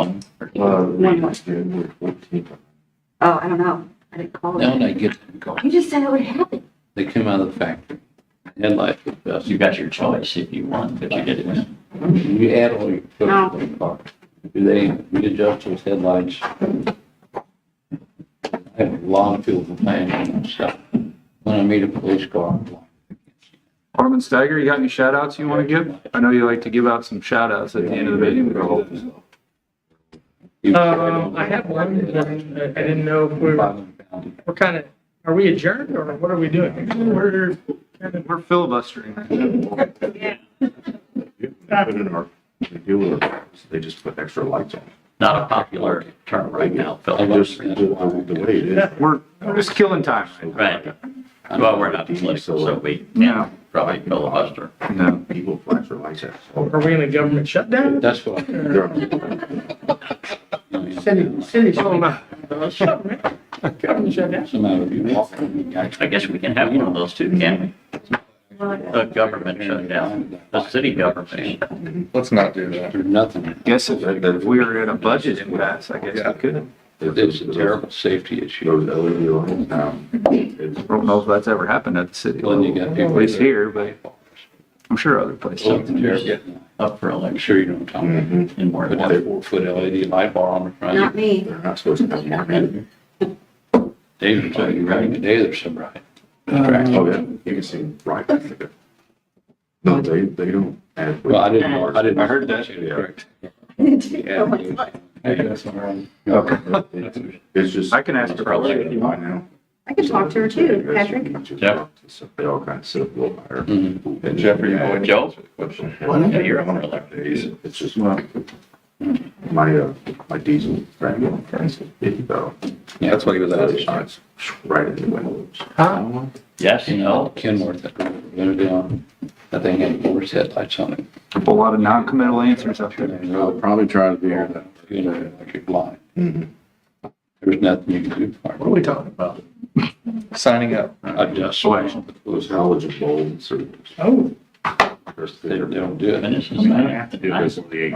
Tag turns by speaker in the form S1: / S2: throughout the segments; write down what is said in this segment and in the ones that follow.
S1: one.
S2: Uh,
S3: No, no.
S2: January fourteenth.
S3: Oh, I don't know. I didn't call
S1: Now
S3: it.
S1: when I get them going,
S3: You just said it would happen.
S1: they come out of the factory. And like, uh,
S4: You got your choice if you want, but you didn't. win.
S1: you add all your.
S3: No.
S1: to the car. Do they readjust those headlights? I have a long field of planning and stuff. When I meet a police car, I'm like,
S5: Alderman Steiger, you got any shout outs you want to give? I know you like to give out some shout outs at the end of the meeting.
S1: you-
S6: Um, I have one, I I didn't know if we were, we're kind of, are we adjourned or what are we doing? We're,
S5: We're filibustering.
S2: They do it, they just put extra lights on.
S4: Not a popular term right now,
S2: I
S4: Phil.
S2: just, the the way it is.
S5: We're we're just killing time.
S4: Right. Well, we're not political, so we
S5: No.
S4: probably filibuster.
S5: No.
S2: People flash their lights at. us all
S6: are we in a government shutdown?
S1: That's what. I-
S2: the time.
S6: City, city.
S5: Oh, no.
S6: Government shutdown.
S1: Somehow if you walk, you got-
S4: I guess we can have one of those too, can
S3: Well,
S4: we? A government shutdown, a city government.
S7: Let's not do that.
S1: There's nothing.
S5: Guess if if we were in a budget impasse, I guess we couldn't.
S1: It's a terrible safety issue.
S2: Those LED lights now. it's-
S5: I don't know if that's ever happened at the city
S1: Well, you
S5: level.
S1: got
S5: At
S1: people.
S5: least here, but I'm sure other places.
S1: Something terrible.
S4: Up for
S1: I'm
S4: election
S1: sure you don't tell me.
S2: Mhm.
S4: in more
S1: Put
S4: than
S1: that
S4: one.
S1: four foot LED light bar on the
S3: Not
S1: front.
S3: me.
S2: They're not supposed to have one.
S1: Dave was talking right today, there's some right.
S2: Oh, yeah, you can see right back there. No, they, they don't add.
S1: Well, I didn't, I didn't.
S5: I heard that.
S1: Correct.
S3: Uh, Oh, my God.
S2: Okay. It's just.
S5: I can ask her about
S2: Probably
S5: it.
S2: by now.
S3: I can talk to her too, Patrick.
S4: Yeah.
S2: They all kind of sit up a little higher.
S4: Mm-hmm.
S1: Mhm.
S2: And
S7: Jeffrey, you want to
S4: Joe?
S7: answer the question?
S4: Yeah, you're up for election.
S2: It's it's just my, my, uh, my diesel ran low. It, uh,
S7: That's what he was asking.
S2: it's right in the windows.
S4: Yes,
S1: You
S4: no.
S1: know, Kenworth, that went down, that thing had four headlights on it.
S5: A lot of non-committal answers up there.
S1: You
S7: probably trying to
S1: know, like you're blind. There was nothing you could do
S6: What are
S1: for it.
S6: we talking about?
S7: Signing up.
S1: I just,
S5: Why?
S2: Those halogen bulbs or.
S6: Oh,
S1: they they don't do it.
S4: This is not have to do
S2: Because
S4: this.
S2: of the 18.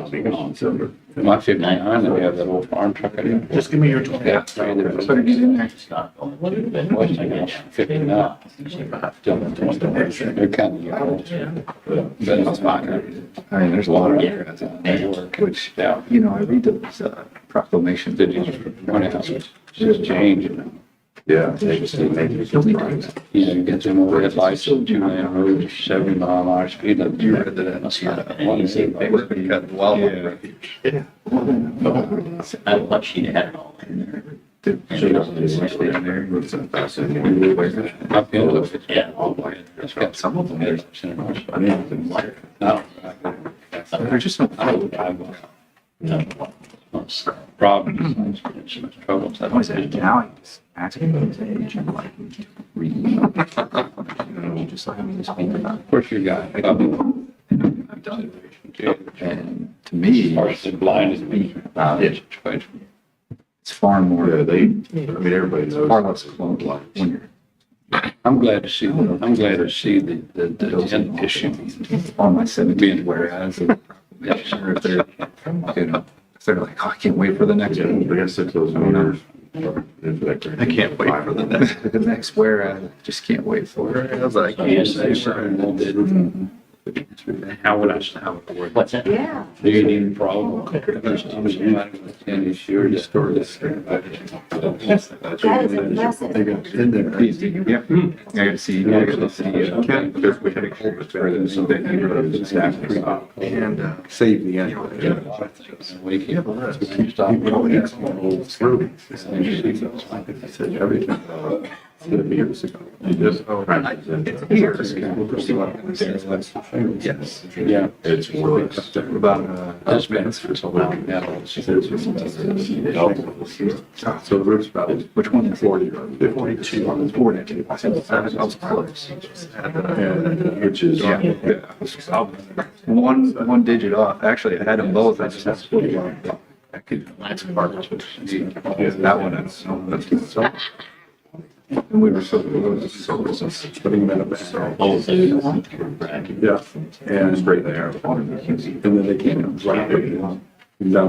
S2: I'll be gone. So,
S1: My fifty-nine, they have that old farm truck. out here.
S6: just give me your twenty.
S1: Yeah.
S5: Better get in there.
S4: It's not going to do it.
S1: West House, fifty-nine. They're kind of. But it's fine.
S5: I mean, there's a lot of,
S1: They work.
S5: which,
S1: Yeah.
S5: you know, I read those uh, proclamations.
S1: They just, one house, it's just change, you know.
S2: Yeah. they just- they make it just right.
S1: you know, you get them over at lights, two lane roads, seventy mile an hour speed limit.
S7: You read that.
S4: Must not have been
S1: One
S4: easy.
S1: day,
S7: They were gonna cut the wildlife refuge.
S4: I thought she had it all in there.
S2: Dude, so you don't just stay in there. It's a thousand and one ways.
S1: I've been with it.
S4: Yeah.
S2: All like-
S1: It's got some of them. that's in it.
S2: I didn't even like it.
S1: No.
S5: There's just no.
S1: I don't drive one.
S4: It's
S1: Problems, troubles. I
S5: What is
S1: don't
S5: it?
S1: think.
S5: Now I just ask him his age and like read. You know, just like I'm just thinking about.
S1: Of course, you got. And
S5: And to me,
S1: partially blind as me.
S5: uh,
S1: Yes, situation.
S5: it's far more.
S2: Yeah, they, I mean, everybody knows.
S5: Far less clunky when you're
S1: I'm glad to see, I'm glad to see the, the, the end issue.
S5: on my seventeen, whereas if if they're, you know, if they're like, oh, I can't wait for the next
S2: Yeah,
S5: one.
S2: They got six of those meters. I
S7: I can't wait for the next.
S5: The next whereas, I just can't wait for it.
S7: I was like,
S1: Yes, they certainly did. How would I, how would I word
S4: What's that?
S3: Yeah.
S1: Do you need a problem? Ten is sure to store this.
S3: That is impressive.
S2: In there.
S5: Yeah, I gotta see, I gotta see. uh,
S2: Because we had a whole experiment, so that you wrote it exactly.
S7: and uh, save the
S2: Yeah.
S7: animal.
S1: Wake
S2: You
S1: you
S2: have
S1: up.
S2: a list.
S1: You stop.
S2: You probably have some old through. It's like you see those, like I said, everything, uh, it's gonna be years ago. You just-
S5: oh,
S7: It's here. Yes.
S1: Yeah.
S2: It's worse.
S7: About, uh,
S1: That's been.
S2: So the roof's about. Which one? Forty. Forty-two. On the forty-two. I said, I was close. Which is.
S5: I'll- One, one digit off. Actually, I had them both. I just have to put one. I could,
S4: That's part of it.
S5: that one, I don't know. That's just so-
S2: And we were so, we were so, putting them in a bag.
S4: Oh, so-
S2: Yeah. And straight there. And then they came right. there.